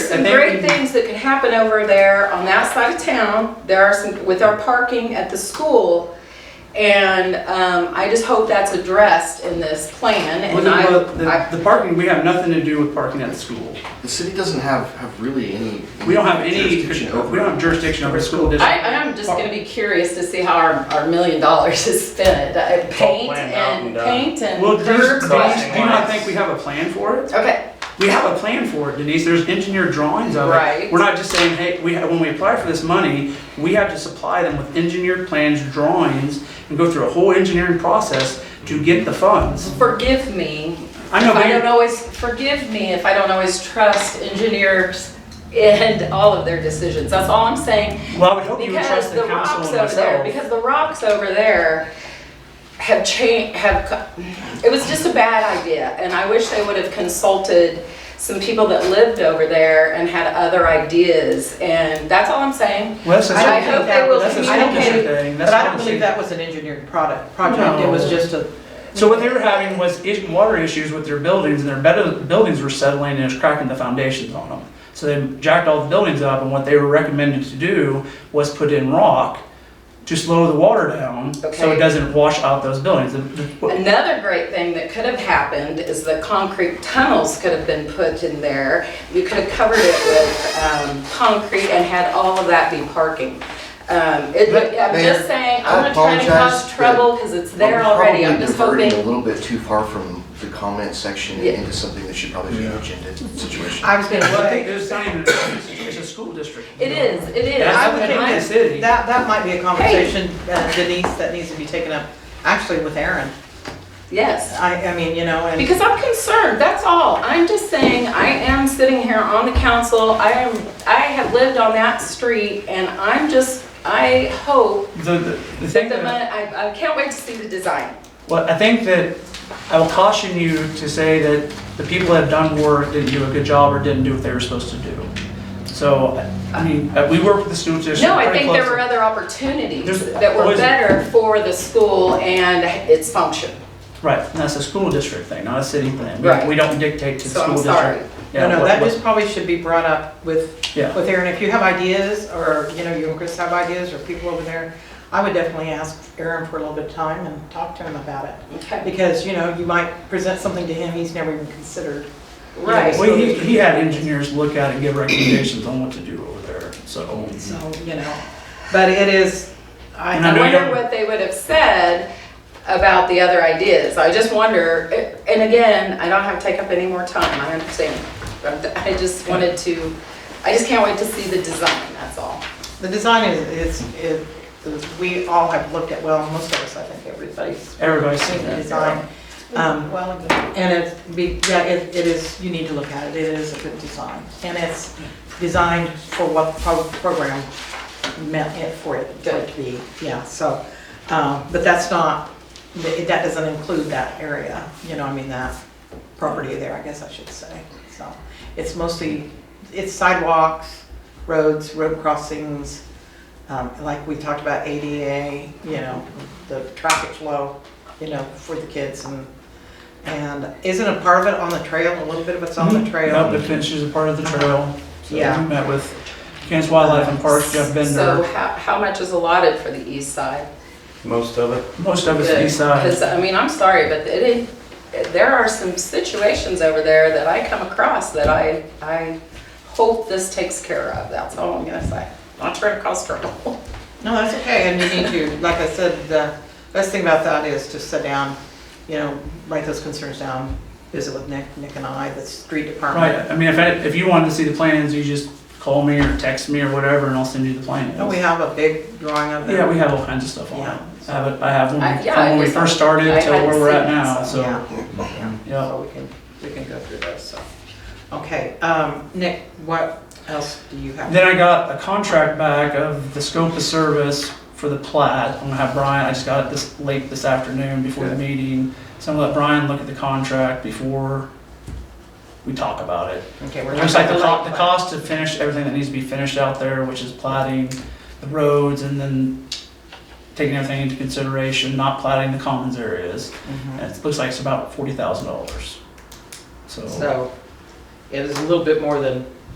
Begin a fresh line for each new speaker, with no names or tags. some
I think
great
we-
things that could happen over there on that side of town. There are some, with our parking at the school. And um, I just hope that's addressed in this plan. And
Well, the- well,
I,
The the parking, we have nothing to do with parking at the school.
The city doesn't have, have really any.
We don't have any,
jurisdiction over
we
it.
don't have jurisdiction over the school
I,
district.
I'm just gonna be curious to see how our, our million dollars is spent. Uh, Paint
planned out
and,
and done.
paint and
Well, do you, do you-
curbs.
do
Crossing
you not
lines.
think we have a plan for it?
Okay,
We have a plan for it, Denise, there's engineered drawings of it.
Right.
We're not just saying, hey, we, when we apply for this money, we have to supply them with engineered plans, drawings, and go through a whole engineering process to get the funds.
forgive me.
I know,
If I
but
don't
you-
always, forgive me if I don't always trust engineers and all of their decisions. That's all I'm saying.
well, I would hope you would
Because
trust the
the
council
rocks
and
over there,
myself.
because the rocks over there have changed, have, co- it was just a bad idea. And I wish they would have consulted some people that lived over there and had other ideas. And that's all I'm saying.
Well, that's a-
I
that's
hope they will
a school district
communicate.
thing.
But
That's
I
not
don't
a
believe
city.
that was an engineered product, project, it was just a,
So what they were having was is- water issues with their buildings, and their bed- buildings were settling and it was cracking the foundations on them. So they jacked all the buildings up, and what they were recommended to do was put in rock to slow the water down, so
Okay.
it doesn't wash out those buildings. The- the-
Another great thing that could have happened is the concrete tunnels could have been put in there. You could have covered it with um, concrete and had all of that be parking. Um, it-
But,
I'm just
Mayor,
saying,
I
I'm not trying to
apologize,
cause trouble because it's there
We're
already. I'm
probably
just
diverting
hoping.
A little bit too far from the comment section and
Yeah.
into something that should probably be an agenda situation.
I was gonna
Well, I think
say,
there's not even, it's a school district.
It is, it is.
That's
I
not
would
gonna be a
like-
city.
that, that might be a conversation, uh, Denise, that needs to be taken up, actually with Aaron.
Yes.
I, I mean, you know, and.
Because I'm concerned, that's all. I'm just saying, I am sitting here on the council. I am, I have lived on that street and I'm just, I hope
The, the, the
that
thing
the
that.
money, I, I can't wait to see the design.
Well, I think that I will caution you to say that the people that have done work didn't do a good job or didn't do what they were supposed to do. So, I mean, uh, we work with the school district.
No, I
pretty
think there were
closely.
other opportunities
There's
that were
always-
better for the school and its function.
Right, and that's a school district thing, not a city thing.
Right.
We- We don't dictate to the
So I'm
school district.
sorry.
Yeah,
No, no,
what-
that
what-
just probably should be brought up with,
Yeah.
with Aaron. If you have ideas, or, you know, you and Chris have ideas, or people over there, I would definitely ask Aaron for a little bit of time and talk to him about it.
Okay.
Because, you know, you might present something to him he's never even considered.
Right.
Well, he, he had engineers look at it and give recommendations on what to do over there, so.
So, you know, but it is,
And I
I,
know
I
you
wonder
don't-
what they would have said about the other ideas. I just wonder, and again, I don't have to take up any more time, I understand. But I just wanted to, I just can't wait to see the design, that's all.
the design is, is, it- we all have looked at, well, most of us, I think everybody's
Everybody's
seen
seen
the
that.
design. Um,
Well,
And it's, be- yeah, it it is, you need to look at it, it is a good design. And it's designed for what pro- program meant it for it for it to be, yeah, so. um, But that's not, that that doesn't include that area, you know, I mean, that property there, I guess I should say. So it's mostly, it's sidewalks, roads, road crossings, um, like we talked about ADA, you know, the traffic flow, you know, for the kids and and isn't a part of it on the trail, a little bit of it's on the
Yep,
trail?
Mm-hmm. the fence is a part of
Uh-huh.
the trail. So
Yeah.
We met with Kansas Wildlife and Parks, Jeff Bender.
So how, how much is allotted for the east side?
Most of it.
Most of it's east side.
Because, I mean, I'm sorry, but it, it- there are some situations over there that I come across that I, I hope this takes care of, that's all I'm gonna say. Not trying to cause trouble.
No, that's okay, and you need to, like I said, the best thing about that is to sit down, you know, write those concerns down, visit with Nick, Nick and I, the street
Right,
department.
I mean, if, I- if you wanted to see the plans, you just call me or text me or whatever, and I'll send you the plans.
Don't we have a big drawing of it?
Yeah, we have all kinds of stuff on
Oh, Yeah.
it. I have, it- I have
I-
one
yeah,
from when
I
we
just-
first started
I
till where
hadn't
we're at
seen it,
now,
so-
so,
Yeah, yeah,
yeah.
so we can, we can go through those, so. Okay, um, Nick, what else do you have?
Then I got a contract back of the scope of service for the plat. I'm gonna have Brian, I just got it this late this afternoon before the meeting. So I'm gonna let Brian look at the contract before we talk about it.
Okay, we're
Looks like the cost,
talking about
the
light
cost to finish everything that needs to be finished out there, which is plating the roads and then taking everything into consideration, not plating the commons areas.
bulb. Mhm.
And it looks
Mm-hmm.
like it's about forty thousand dollars. So,
So it is a little bit more than